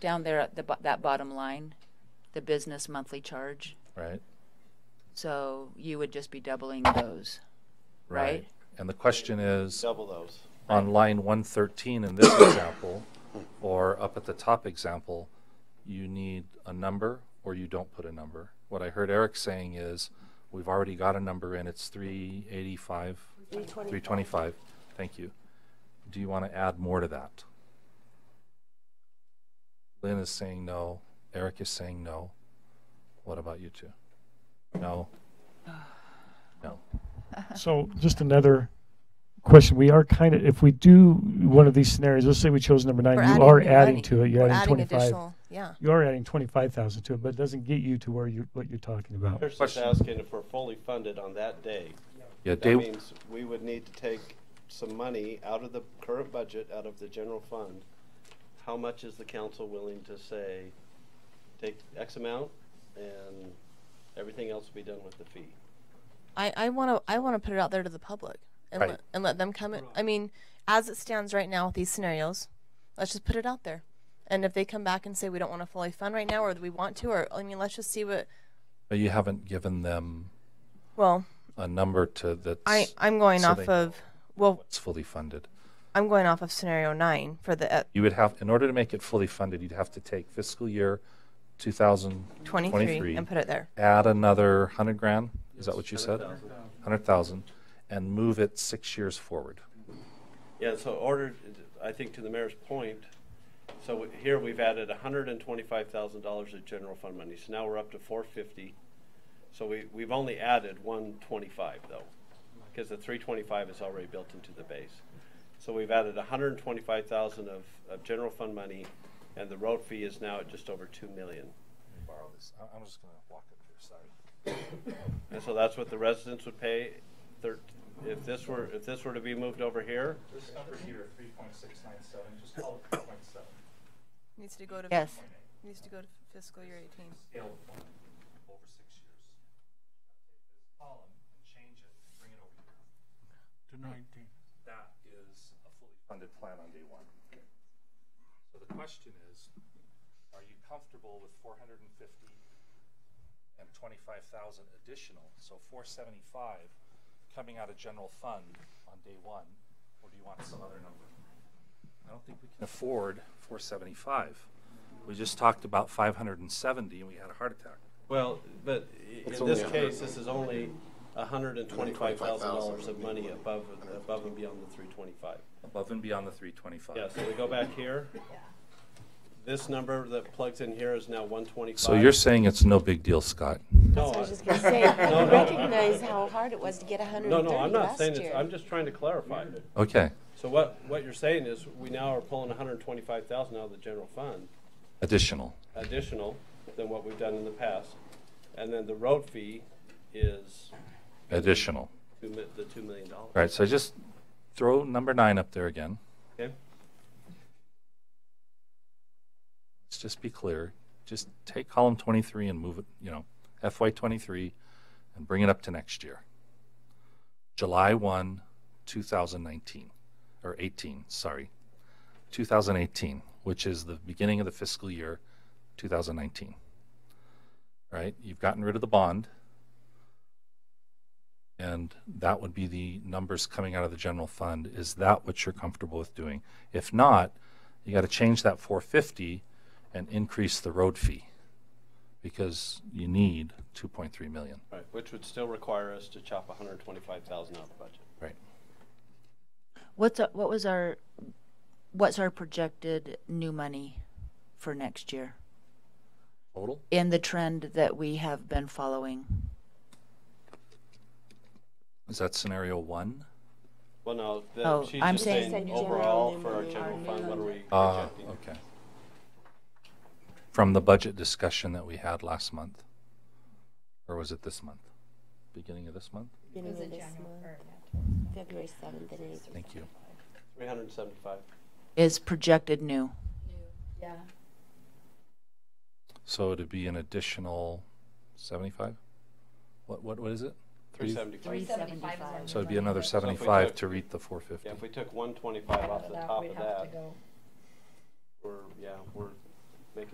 down there at the, bo- that bottom line, the business monthly charge. right? So you would just be doubling those. Right. And the question is, double those. on line one thirteen in this example, or up at the top example, you need a number or you don't put a number. What I heard Eric saying is, we've already got a number in, it's three eighty-five, three twenty-five, thank you. Do you want to add more to that? Lynn is saying no, Eric is saying no. What about you two? No? No. So just another question. We are kind of, if we do one of these scenarios, let's say we chose number nine, We're you are new money. adding to it. You're We're adding twenty-five. additional- Yeah. You are adding twenty-five thousand to it, but it doesn't get you to where you, what you're talking about. They're just Question. asking if we're fully funded on that day. Yeah, That Dave, means we would need to take some money out of the current budget, out of the general fund. How much is the council willing to say, take X amount and everything else will be done with the fee? I, I want to I want to put it out there to the public and Right. let, and let them come in. I mean, as it stands right now with these scenarios, let's just put it out there. And if they come back and say we don't want to fully fund right now, or we want to, or I mean, let's just see what. but you haven't given them Well, a number to that's I I'm going so off they- of well it's fully funded. I'm going off of scenario nine for the uh, You would have, in order to make it fully funded, you'd have to take fiscal year 23, 2023, and put it there. add another 100 grand, is that what you said? 100,000, and move it six years forward. Yeah, so ordered, I think to the mayor's point, so here we've added hundred and twenty-five thousand dollars of general fund money, so now we're up to four fifty. So we, we've only added one twenty-five though, because the three twenty-five is already built into the base. So we've added hundred and twenty-five thousand of, of general fund money, and the road fee is now at just over two million. Borrow this, I'm just going to walk up here, sorry. And so that's what the residents would pay, thir- if this were, if this were to be moved over here, This number here, 3.697, just call it 3.7. Needs to go to Yes. Needs to go to fiscal year 18. scale of one over six years. Take this column and change it, and bring it over here. To nineteen. That is a fully funded plan on day one. So the question is, are you comfortable with four hundred and fifty and twenty-five thousand additional, so four seventy-five coming out of general fund on day one, or do you want some other number? I don't think we can afford four seventy-five. We just talked about five hundred and seventy and we had a heart attack. Well, but i- in this case, this is only hundred and twenty-five thousand dollars of money above, above and beyond the three twenty-five. Above and beyond the three twenty-five. Yeah, so we go back here. This number that plugs in here is now one twenty-five. So you're saying it's no big deal, Scott? No, I was I- just gonna say, I no. recognize how hard it was to get hundred no, and no, I'm thirty not last saying it's, year. I'm just trying to clarify. Okay, So what, what you're saying is, we now are pulling hundred and twenty-five thousand out of the general fund, additional. additional than what we've done in the past. And then the road fee is Additional. two mi- the two million dollars. All right, so just throw number nine up there again. Okay? Let's just be clear. Just take column 23 and move it, you know, FY 23 and bring it up to next year. July 1, 2019, or 18, sorry. 2018, which is the beginning of the fiscal year 2019. Right? You've gotten rid of the bond. And that would be the numbers coming out of the general fund. Is that what you're comfortable with doing? If not, you got to change that 450 and increase the road fee because you need 2.3 million. Right, which would still require us to chop hundred and twenty-five thousand out of the budget. Right. What's, our- what was our, what's our projected new money for next year? Total? In the trend that we have been following? Is that scenario one? Well, no, Oh, the, she's I'm just saying- saying Said general overall new for our money. general fund, what are we Ah, projecting? okay. From the budget discussion that we had last month? Or was it this month? Beginning of this month? Beginning of this month, February seventh and eighth. Thank you. Three hundred and seventy-five. Is projected new? So it'd be an additional 75? What, what, what is it? Three seventy-five. seventy-five. So it'd be another if we 75 took- to reach the Yeah, if 450. we took one twenty-five off the top of that, we're, yeah, we're